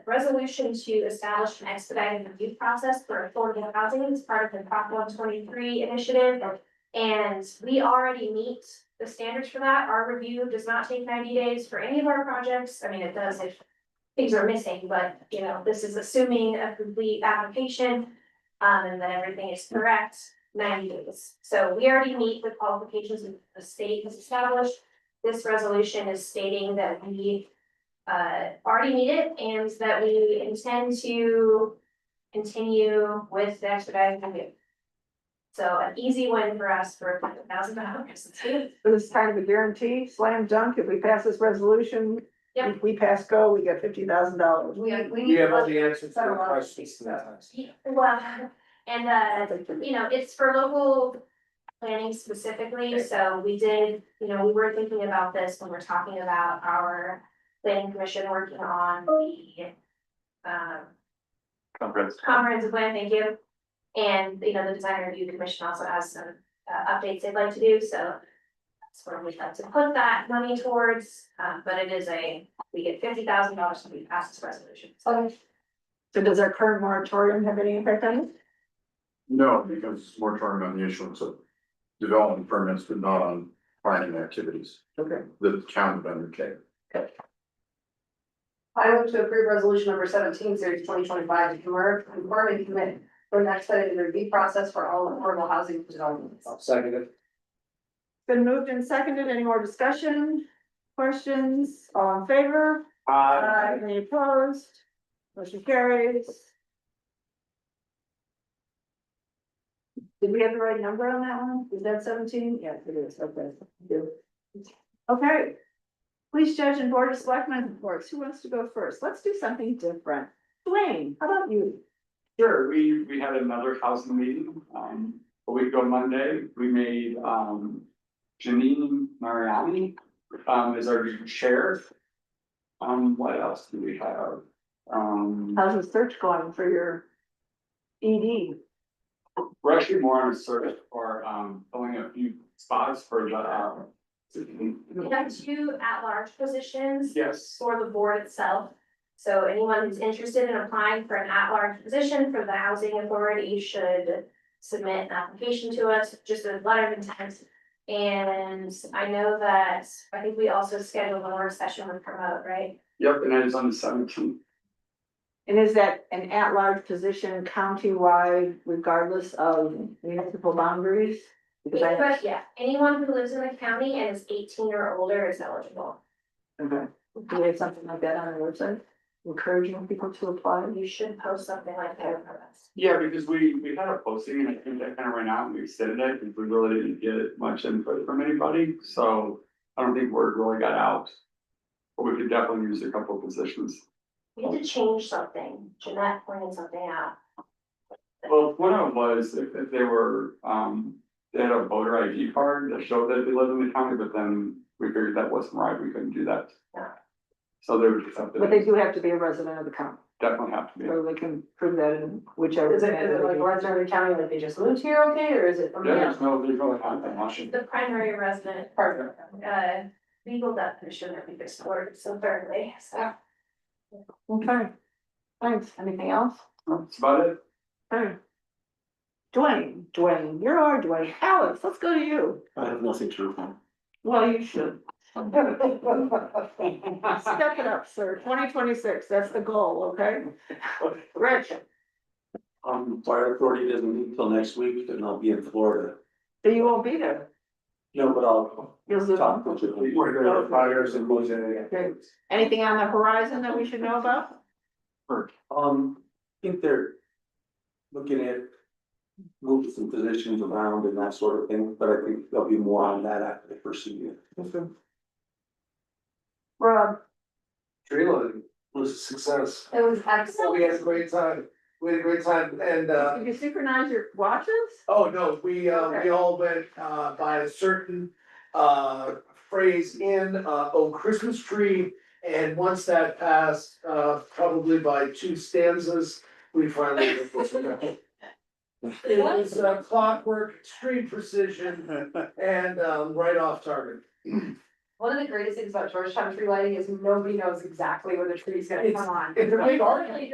resolution to establish an expedited review process for affordable housing as part of the Prop one twenty-three initiative. And we already meet the standards for that. Our review does not take ninety days for any of our projects. I mean, it does if things are missing, but you know, this is assuming a complete application. um, and that everything is correct ninety days. So we already meet the qualifications that the state has established. This resolution is stating that we uh already meet it and that we intend to continue with the expedited review. So an easy win for us for a thousand dollars. But it's kind of a guarantee, slam dunk, if we pass this resolution, Yep. if we pass go, we get fifty thousand dollars. We we We need have all to. the answers to Better our one. questions now. Well, and uh you know, it's for local planning specifically, so we did, you know, we were thinking about this when we're talking about our planning commission working on the um Conference. comprehensive plan, thank you. And, you know, the design review commission also has some uh updates they'd like to do, so that's where we'd like to put that money towards, um, but it is a, we get fifty thousand dollars when we pass this resolution. Okay. So does our current moratorium have any impact on it? No, because it's more moratorium on the issuance of development permits, but not on planning activities Okay. that the county would undertake. I move to approve resolution number seventeen, series twenty twenty five, to convert, confirm and commit for an expedited review process for all affordable housing developments. I'll second it. Been moved and seconded, any more discussion, questions, all in favor? Uh, Aye. Any opposed? Motion carries. Did we have the right number on that one? Is that seventeen? Yes, it is, okay. Okay. Police judge and board of selectmen reports, who wants to go first? Let's do something different. Blaine, how about you? Sure, we, we had another housing meeting, um, a week ago Monday, we made, um, Janine Mariani, um, is our new chair. Um, what else do we have? Um, How's the search going for your E ED? we're actually more on a search for, um, filling a few spots for the, uh, We have two at-large positions yes. for the board itself. So anyone who's interested in applying for an at-large position for the housing authority should submit an application to us, just a letter of intent. And I know that, I think we also scheduled a work session with promote, right? Yep, and it is on the seventeenth. And is that an at-large position countywide regardless of municipal boundaries? Because I- But yeah, anyone who lives in the county and is eighteen or older is eligible. Okay. Do we have something like that on our website, encouraging people to apply? You should post something like that for us. Yeah, because we, we had a posting and I think that kind of ran out and we extended it because we really didn't get much input from anybody, so I don't think word really got out. But we could definitely use a couple of positions. We had to change something. Jeanette pointed something out. Well, one of them was if, if they were, um, they had a voter ID card that showed that they lived in the county, but then we figured that wasn't right, we couldn't do that. Yeah. So there was something, But they do have to be a resident of the county, definitely have to be, or they can prove that in whichever. Is it, is it like Orange the County, like they just moved here, okay, or is it from? Yeah, there's no, there's really not that much. The primary resident Part of it. uh, legal definition that we just worded so thoroughly, so. Okay. Thanks, anything else? That's about it. Okay. Dwayne, Dwayne, you're our Dwayne, Alex, let's go to you. I have nothing to report. Well, you should. Step it up, sir, twenty twenty-six, that's the goal, okay? Rich, Um, fire authority doesn't meet until next week, and I'll be in Florida. so you won't be there, No, but I'll you'll zoom. talk in. to you. We're gonna fires and losing Okay. Anything on the horizon that we should know about? Um, I think they're looking at moving some positions around and that sort of thing, but I think there'll be more on that after the first year. Rob, Trailer was a success. It was So Oh, excellent. we had a great time. We had a great time and uh, did you synchronize your watches? oh no, we uh, we all went uh by a certain uh phrase in uh, oh Christmas tree. And once that passed, uh probably by two stanzas, we finally. did this. It was uh, clockwork, extreme precision and um right off target. One of the greatest things about Georgetown tree lighting is nobody knows exactly when the tree's gonna It's- come on. It's a big argument.